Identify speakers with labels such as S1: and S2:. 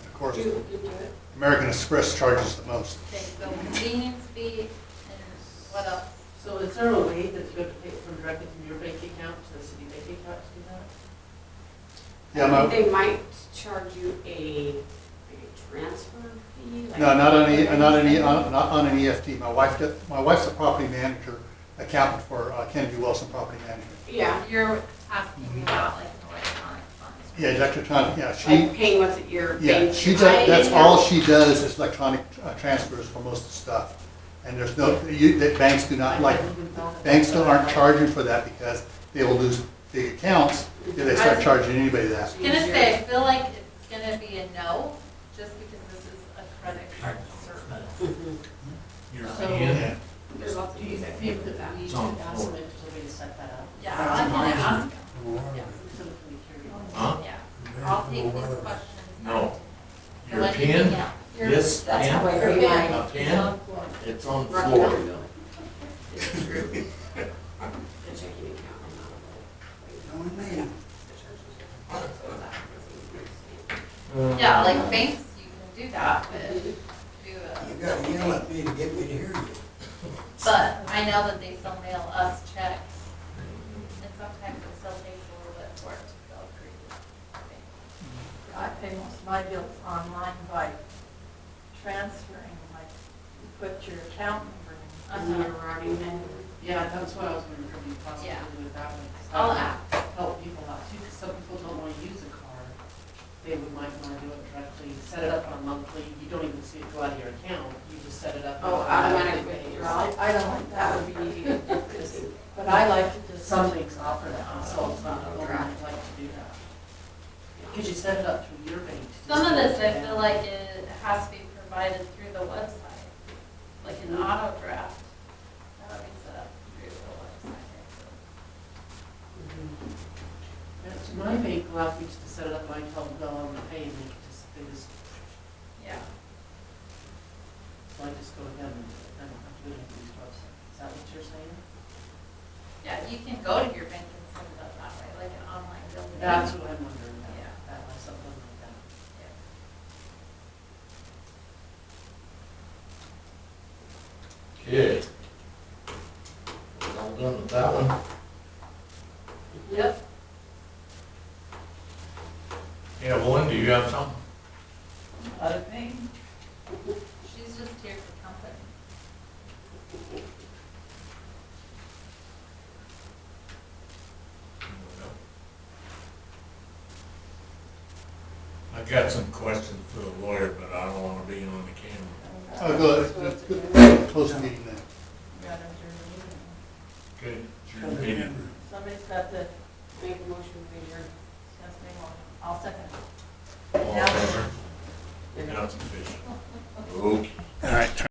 S1: Of course,
S2: Do, you do it.
S1: American Express charges the most.
S3: Okay, so convenience fee and what else?
S2: So is there a way that you have to pay from directly from your bank account to the city bank account to do that?
S1: Yeah,
S4: I think
S1: no,
S4: They might charge you a, like a transfer fee? like-
S1: no, not on, E- not on, E- on- not on an EFT. My wife, did- my wife's a property manager, accountant for uh, Kennedy Wilson Property Management.
S4: Yeah,
S3: You're asking
S5: Mm-hmm.
S3: me about like an electronic funds.
S1: Yeah, electronic, yeah, she,
S4: like paying what's at your
S1: yeah,
S4: bank.
S1: she
S4: I
S1: does, that's
S4: didn't know.
S1: all she does is electronic uh, transfers for most of the stuff. And there's no, you, that banks do not Uh, like, banks still aren't charging for that because they will lose big accounts if they start charging anybody that.
S3: I was gonna say, I feel like it's gonna be a no, just because this is a credit card service.
S5: You're
S2: So-
S5: in.
S4: There's lots of
S2: Do you
S4: things that pay
S2: think
S4: for
S2: that
S4: that.
S2: we
S5: It's
S2: should
S5: on the
S2: ask
S5: floor.
S2: them if there's a way to set that up?
S3: Yeah, I'm gonna ask them,
S2: Yeah, so that we can carry on.
S5: Huh?
S3: yeah. I'll take these questions. back
S5: No.
S3: to
S5: You're
S3: them.
S5: pin?
S3: Yeah.
S5: This
S4: That's how
S5: pin?
S4: I earn
S3: Yeah.
S4: my.
S5: A pin? It's on the floor.
S4: Rocky This is true. The checking account, I'm not. a-
S3: Yeah, like banks, you can do that, but do
S6: You
S3: a,
S6: gotta yell at me to get me to hear you.
S3: but I know that they still mail us checks. And sometimes it still takes a little bit for it to go through.
S7: Mm-hmm. I pay most of my bills online by transferring, like, you put your account number
S4: I'm
S3: Uh-huh.
S4: not a Rocky man.
S2: Yeah, that's what I was wondering, if you possibly
S3: Yeah.
S2: do it that way.
S3: I'll ask.
S2: Help people out too, because some people don't want to use a card. They would might want to do it directly, set it up on a monthly, you don't even see it go out of your account, you just set it up.
S4: Oh, automatic withdrawal.
S7: in. I, I don't like
S4: That
S7: that,
S4: would be easy to do, because
S7: but I like to just,
S2: Some things offer that, so it's not, I would
S4: Right.
S2: like to do that. Because you set it up through your bank.
S3: Some of this, I feel like it has to be provided through the website, like an
S7: Mm-hmm.
S3: auto draft. That would be set up through the website.
S2: That's My bank allows me just to set it up, and I tell them, no, I'm not paying, they just, they just,
S3: Yeah.
S2: so I just go to them, and I don't have to do anything to website. Is that what you're saying?
S3: Yeah, you can go to your bank and set it up that way, like an online building.
S2: That's what I'm wondering about,
S3: Yeah.
S2: that, like something like that.
S5: Okay. We're all done with that one.
S3: Yep.
S5: Evelyn, do you have something?
S7: other things.
S3: She's just here for company.
S5: I got some questions for the lawyer, but I don't wanna be on the camera.
S1: Oh, go, uh, close the meeting then.
S7: Got them through the meeting.
S5: Okay. it's your meeting.
S7: Somebody's got the,
S4: Make a motion to adjourn.
S7: that's me, well, I'll second.
S5: All in favor?
S4: Yeah.
S5: That's official. Okay.
S6: All